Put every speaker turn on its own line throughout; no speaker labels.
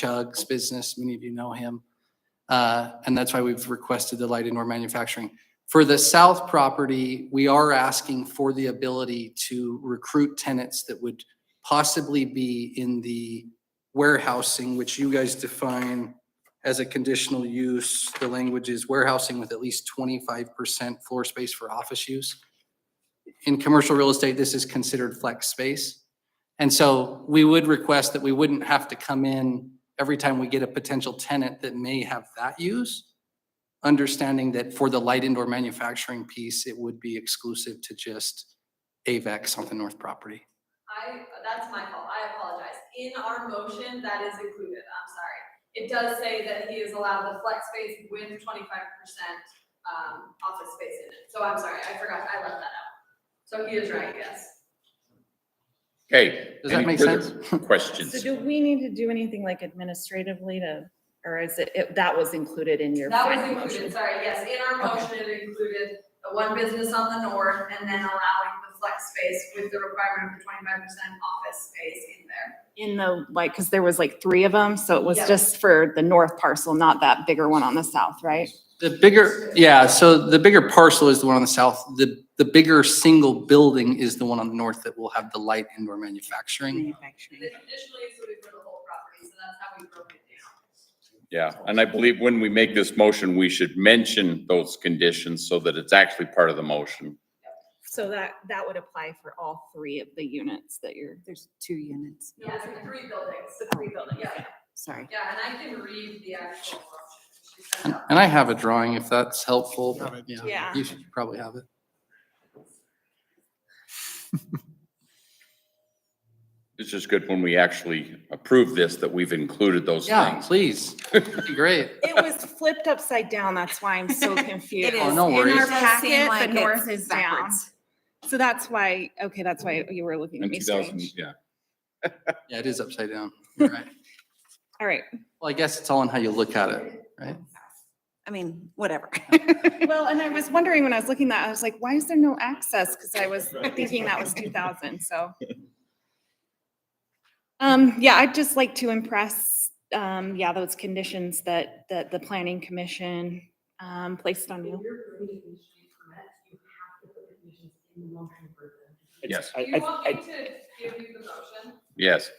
Chug's business. Many of you know him. Uh, And that's why we've requested the light indoor manufacturing. For the south property, we are asking for the ability to recruit tenants that would possibly be in the warehousing, which you guys define as a conditional use. The language is warehousing with at least twenty-five percent floor space for office use. In commercial real estate, this is considered flex space. And so we would request that we wouldn't have to come in every time we get a potential tenant that may have that use. Understanding that for the light indoor manufacturing piece, it would be exclusive to just AVEX on the north property.
I, that's my fault, I apologize. In our motion, that is included, I'm sorry. It does say that he is allowed the flex space with twenty-five percent, um, office space in it. So I'm sorry, I forgot, I left that out. So he is right, yes.
Okay.
Does that
any
make
further
sense?
Questions?
So do we need to do anything like administratively to, or is it- it, that was included in your
That was
final
included,
motion?
sorry, yes, in our motion, it included the one business on the north and then allowing the flex space with the requirement of the twenty-five percent office space in there.
In the, like, because there was like three of them, so it was
Yeah.
just for the north parcel, not that bigger one on the south, right?
The bigger, yeah, so the bigger parcel is the one on the south. The, the bigger single building is the one on the north that will have the light indoor manufacturing.
The conditional use would be for the whole property, so that's how we broke it down.
Yeah, and I believe when we make this motion, we should mention those conditions so that it's actually part of the motion.
So that, that would apply for all three of the units that you're.
There's two units.
Yeah, it's the three buildings.
The three buildings.
Yeah,
Sorry.
yeah, and I can read the actual motion. She sent
And
out.
and I have a drawing if that's helpful, but yeah,
Yeah.
you should probably have it.
It's just good when we actually approve this, that we've included those
Yeah,
things.
please. That'd be great.
It was flipped upside down, that's why I'm so confused.
Oh, no
In
worries.
our
It
packet, the north is down.
down. So that's why, okay, that's why you were looking at
In
me
2000
strange.
yeah.
Yeah, it is upside down. You're right.
All right,
Well, I guess it's all in how you look at it, right?
I mean, whatever.
Well, and I was wondering when I was looking at that, I was like, why is there no access? Because I was thinking that was two thousand, so. Um, yeah, I'd just like to impress, um, yeah, those conditions that, that the planning commission, um, placed on you.
you're approving the street permit, you have to put the conditions in the motion for them.
Yes,
Do
I,
you want
I,
me
I,
to give you the motion?
yes.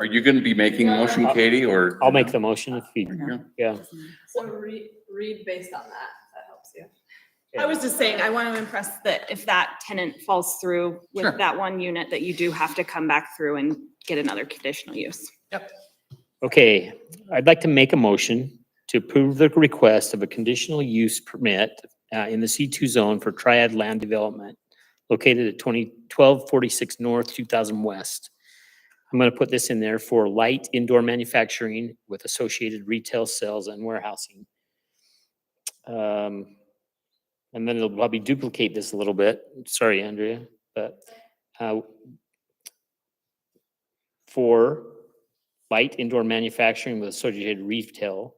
Are you going to be making a motion, Katie, or?
I'll make the motion if you, yeah.
So read, read based on that, if that helps you.
I was just saying, I want to impress that if that tenant falls through
Sure.
with that one unit, that you do have to come back through and get another conditional use.
Okay, I'd like to make a motion to approve the request of a conditional use permit uh, in the C2 zone for Triad Land Development located at 20 1246 North, 2000 West. I'm going to put this in there for light indoor manufacturing with associated retail sales and warehousing. Um, And then it'll probably duplicate this a little bit. Sorry, Andrea, but uh, for light indoor manufacturing with associated retail.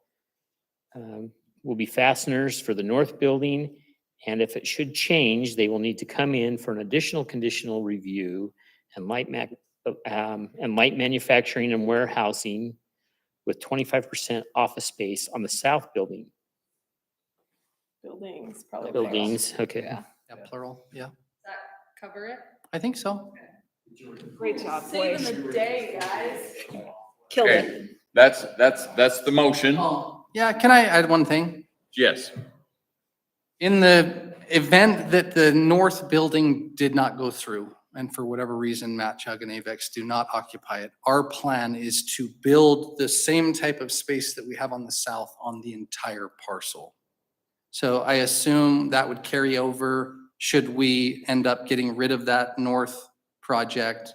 um, Will be fasteners for the north building, and if it should change, they will need to come in for an additional conditional review and light mac, um, and light manufacturing and warehousing with twenty-five percent office space on the south building.
Buildings, probably. plural.
Buildings, okay.
Yeah, plural, yeah.
Does that cover it?
I think so.
Great job, boys.
Saving the day, guys.
Killed it.
Okay, that's, that's, that's the motion.
Oh, yeah, can I add one thing?
Yes.
In the event that the north building did not go through, and for whatever reason, Matt Chug and Avex do not occupy it, our plan is to build the same type of space that we have on the south on the entire parcel. So I assume that would carry over should we end up getting rid of that north project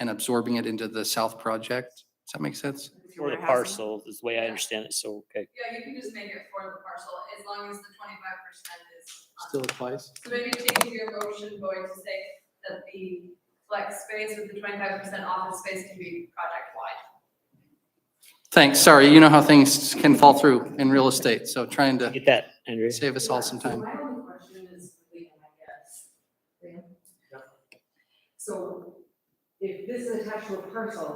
and absorbing it into the south project. Does that make sense?
For the parcel is the way I understand it, so, okay.
Yeah, you can just make it for the parcel, as long as the twenty-five percent is. on.
applies?
So maybe changing your motion, going to say that the flex space with the twenty-five percent office space can be project-wide.
Thanks, sorry, you know how things can fall through in real estate, so trying to
Get that, Andrea?
save us all some
So
time.
My only question is, legal, I guess. Fran? So
if this is attached to a parcel,